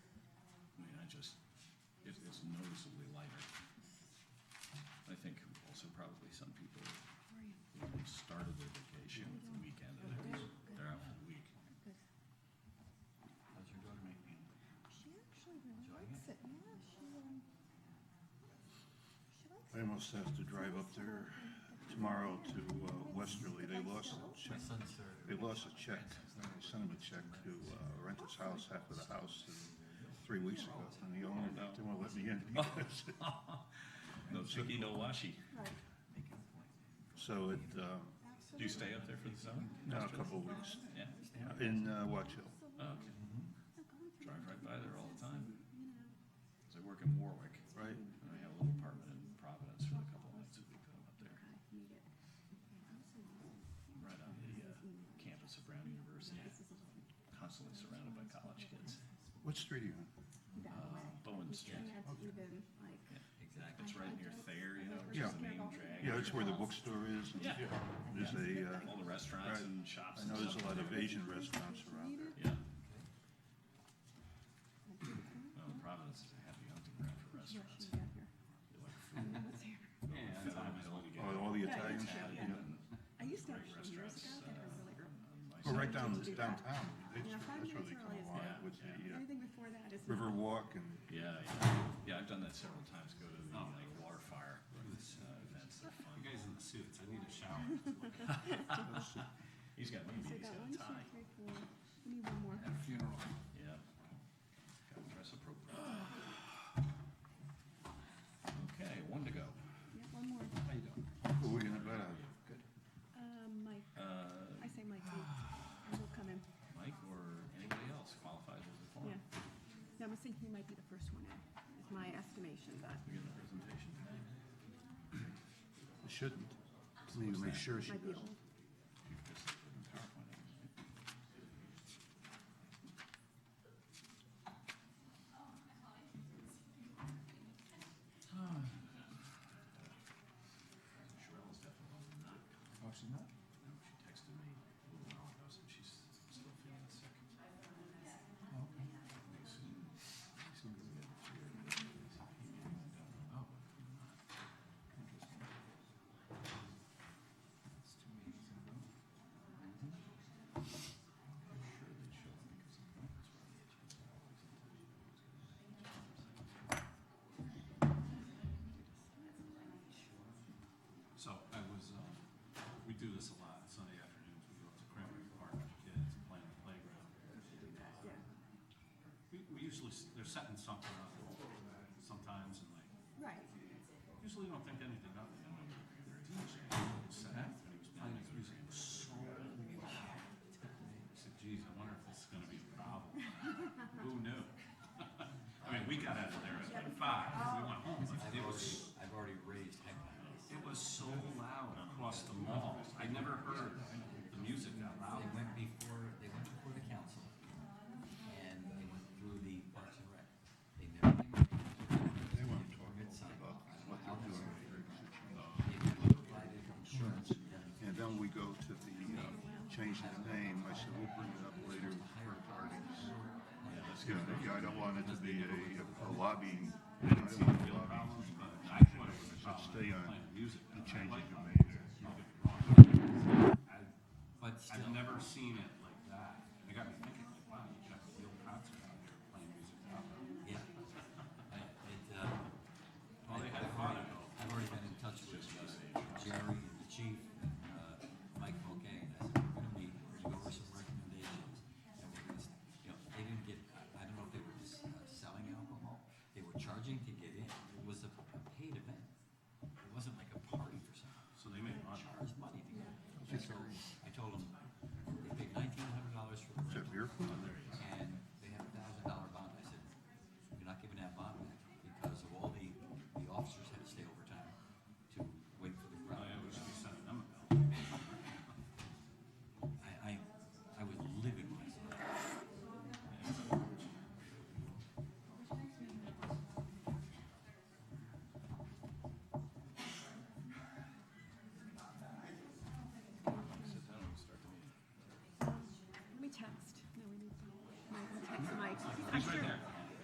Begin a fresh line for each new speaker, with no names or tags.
started their vacation with the weekend and it was, they're out for the week. How's your daughter making?
She actually really
Enjoying
likes it. Yeah, she um, she likes
I
it.
almost have to drive up there tomorrow to uh, Westerly. They lost a check. They lost a check. They sent him a check to uh, rent his house, half of the house, and three weeks ago. And the owner didn't want to let me in because,
No chicky, no washi.
Right.
so it, um,
That's
Do you stay up there for the summer?
now a couple of weeks
Yeah.
in uh, Watch Hill.
Oh, okay. Drive right by there all the time. 'Cause I work in Warwick.
Right.
And I have a little apartment in Providence for a couple nights a week. I'm up there. Right on the uh, campus of Brown University. Constantly surrounded by college kids.
What street are you on?
Uh, Bowen Street.
had to even like.
Exactly. It's right near Thayer, you know, which
Yeah.
is the main drag.
Yeah, that's where the bookstore is. and
Yeah.
There's a, uh,
All the restaurants
Right.
and shops
I
and
know there's
stuff.
a lot of Asian restaurants around there.
Yeah. Well, Providence is a happy hunting ground for restaurants. They like food. Yeah, it's on hill to get
Oh, all the Italians.
Italian
yeah.
and um,
I used to
great
actually years
restaurants.
ago, I think it was really early.
uh,
Well,
on my
right down
Did you do that?
downtown. That's
Yeah, five
that's where
minutes
they come
early is
alive
good.
with the uh,
Anything before that is. not-
Riverwalk and
Yeah, yeah, yeah. I've done that several times. Go to the like water fire uh, events. They're fun.
Oh. You guys in the suits, I need a shower.
He's got me. He's
So
got
that one,
a
two,
tie.
three, four. We need one more.
At a funeral.
Yeah. Gotta dress appropriately. Okay, one to go.
Yeah, one more.
How you doing?
who are we gonna bet on?
Um, Mike.
Uh,
I say Mike. And we'll come in.
Mike or anybody else qualifies as a
Yeah.
forum.
No, I'm thinking he might be the first one in. Is my estimation, but
We get the presentation tonight.
It Shouldn't. Please make sure she
might be
doesn't.
old.
You can just put in PowerPoint, I guess, right?
Oh,
Sherelle is definitely not coming.
Oh, she's not?
No, she texted me a little while ago, said she's still feeling sick.
Oh, okay.
Pretty soon.
She seems good. Oh. Interesting. It's two meetings in a row.
I'm sure that she'll, because the point is right on the agenda, I always thought she was gonna-
So I was,
uh,
um, we do this a lot, Sunday afternoons, we go up to Cranberry Park with the kids, and play on the playground. Uh, We, we usually, s- they're setting something up sometimes, and like,
Right.
usually don't think anything of it. And the DJ was set up, and he was playing his music it was so loud. I said, geez, I wonder if this is gonna be a problem. Who knew? I mean, we got out of there at like five, we went home, but it was
I've already raised heck.
it was so loud across the mall. I never heard the music that loud.
They went before, they went before the council, and they went through the Parks and Rec. They never came up with
They want to talk
a sign
about
off.
what they're doing.
They provided insurance.
And then we go to the, uh, change the name. I said, we'll bring it up later for parties. You know, yeah, I don't want it to be a, a lobbying. I don't want it to be a lobbying.
But I thought it was a
Should
problem.
stay on
Playing music.
the
I
changes
like
you
loud
made there.
music, don't get me wrong. I-
But
I've
still,
never seen it
uh,
Oh,
uh, uh,